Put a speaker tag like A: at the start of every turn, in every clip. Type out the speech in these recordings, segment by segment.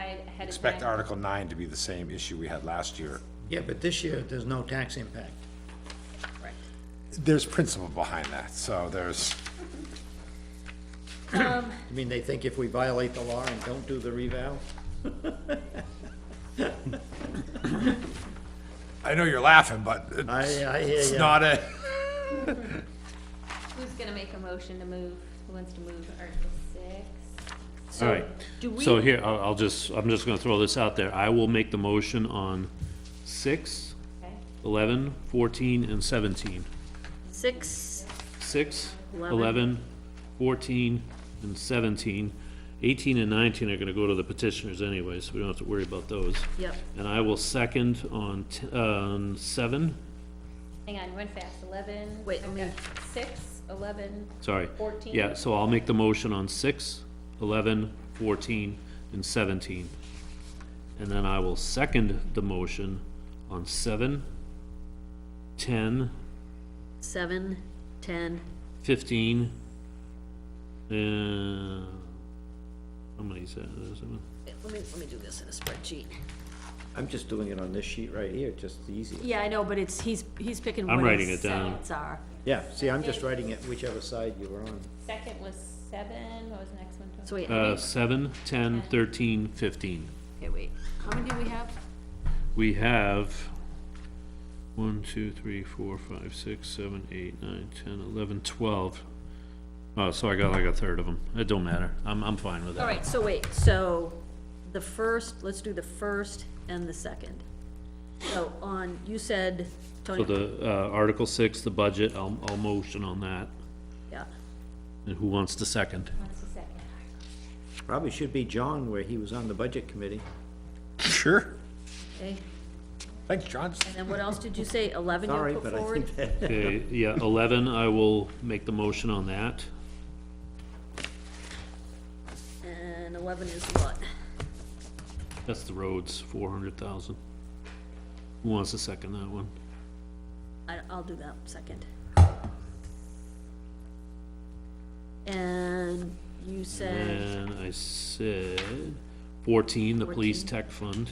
A: ahead of
B: expect
A: time.
B: Article nine to be the same issue we had last year.
C: Yeah, but this year, there's no tax impact.
A: Correct.
B: There's principle behind that, so there's,
C: I mean, they think if we violate the law and don't do the revow,
B: I know you're laughing, but
C: I,
B: it's
C: I hear
B: it's
C: ya.
B: not a,
A: Who's gonna make a motion to move, who wants to move Article six?
D: All right,
A: do we-
D: so here, I'll, I'll just, I'm just gonna throw this out there. I will make the motion on six,
A: Okay.
D: eleven, fourteen, and seventeen.
E: Six,
D: Six,
E: Eleven.
D: eleven, fourteen, and seventeen. Eighteen and nineteen are gonna go to the petitioners anyway, so we don't have to worry about those.
E: yep,
D: And I will second on, t- uh, on seven,
A: Hang on, you went fast, eleven.
E: Wait, let me-
A: okay. Six, eleven,
D: sorry.
A: 14.
D: Yeah, so I'll make the motion on six, eleven, fourteen, and seventeen. And then I will second the motion on seven, ten,
E: seven, ten,
D: fifteen, and, how many is that? There's seven.
E: let me, let me do this in a spreadsheet.
C: I'm just doing it on this sheet right here, just the easiest.
E: Yeah, I know, but it's, he's, he's picking what
D: writing
E: his
D: it down.
E: seconds are.
C: Yeah, see, I'm just writing it whichever side you were on.
A: second was seven, what was the next one? Tom?
E: So wait, how
D: Uh,
E: many-
D: seven, ten, thirteen, fifteen.
E: okay, wait, how many do we have?
D: We have one, two, three, four, five, six, seven, eight, nine, ten, eleven, twelve. Oh, so I got like a third of them. It don't matter. I'm, I'm fine with that.
E: All right, so wait, so the first, let's do the first and the second. So on, you said,
D: So
E: Tony,
D: the, uh, Article six, the budget, I'll, I'll motion on that.
E: yeah,
D: And who wants to second?
A: What's the second?
C: Probably should be John, where he was on the budget committee.
B: sure,
E: okay,
B: thanks, John.
E: and what else did you say, eleven
C: Sorry,
E: you put
C: but I
E: forward?
C: think that,
D: Okay, yeah, eleven, I will make the motion on that.
E: And eleven is what?
D: That's the roads, four hundred thousand. Who wants to second that one?
E: I, I'll do that second. And you said,
D: And I said fourteen, the police tech fund.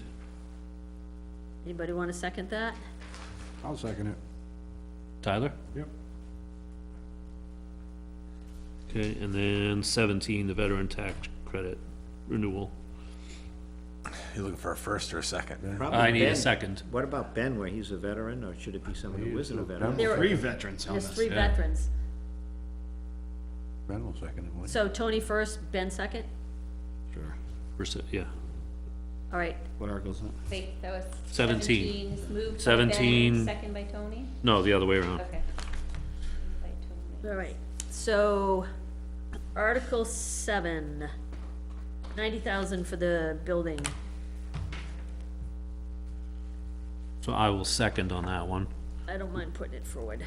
E: anybody wanna second that?
F: I'll second it.
D: Tyler?
F: Yep.
D: Okay, and then seventeen, the veteran tax credit renewal.
B: You looking for a first or a second?
C: probably
D: I need a
C: Ben.
D: second.
C: What about Ben, where he's a veteran, or should it be someone who isn't a veteran?
E: There are,
F: veterans
E: there's three
D: yeah.
E: veterans.
F: Ben will second it, won't
E: So Tony first, Ben second?
F: he? Sure.
D: Percent, yeah.
E: All right,
F: What article's that?
A: Wait, that was.
D: Seventeen.
A: Moved by Ben,
D: Seventeen.
A: second by Tony,
D: No, the other way around.
A: okay. Moved by Tony.
E: all right. So Article seven, ninety thousand for the building.
D: So I will second on that one.
E: I don't mind putting it forward.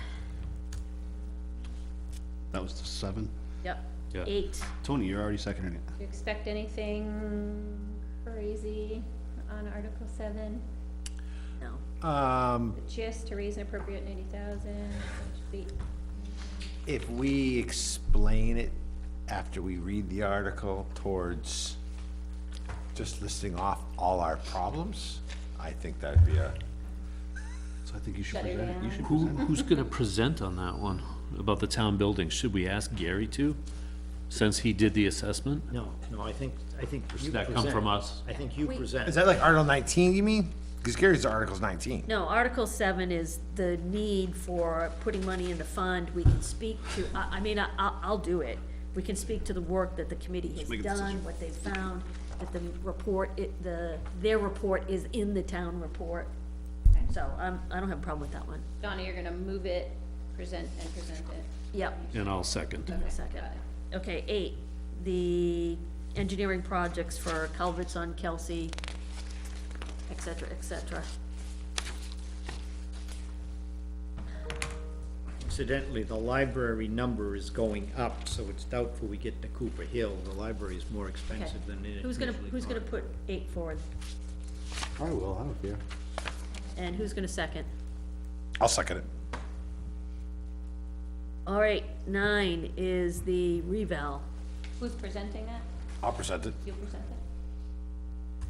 F: That was the seven.
E: Yep.
D: Yeah.
E: Eight,
F: Tony, you're already seconding it.
A: Do you expect anything crazy on Article seven?
E: no.
B: Um,
A: Just to raise and appropriate ninety thousand,
B: if we explain it after we read the article towards just listing off all our problems, I think that'd be a,
F: So I think you should
A: Shut her
F: present it. You should
D: Who,
F: present it.
D: who's gonna present on that one about the town building? Should we ask Gary to? Since he did the assessment?
C: No, no, I think, I think you
D: Does that come
C: present.
D: from us?
C: I think you present.
B: is that like Article nineteen, you mean? Because Gary's Article's nineteen.
E: No, Article seven is the need for putting money in the fund, we can speak to, I, I mean, I, I'll, I'll do it. We can speak to the work that the committee has done, what they've found, that the report, it, the, their report is in the town report. So, I'm, I don't have a problem with that one.
A: Donna, you're gonna move it, present and present it.
E: Yep,
D: And I'll second.
E: in a second. Okay, eight, the engineering projects for culverts on Kelsey, et cetera, et cetera.
C: Incidentally, the library number is going up, so it's doubtful we get to Cooper Hill. The library is more
E: Okay.
C: expensive than it initially.
E: Who's gonna, who's gonna put eight forward,
F: I will, I don't care.
E: and who's gonna second?
B: I'll second it.
E: All right, nine is the revale.
A: Who's presenting that?
B: I'll present it.
A: You present it?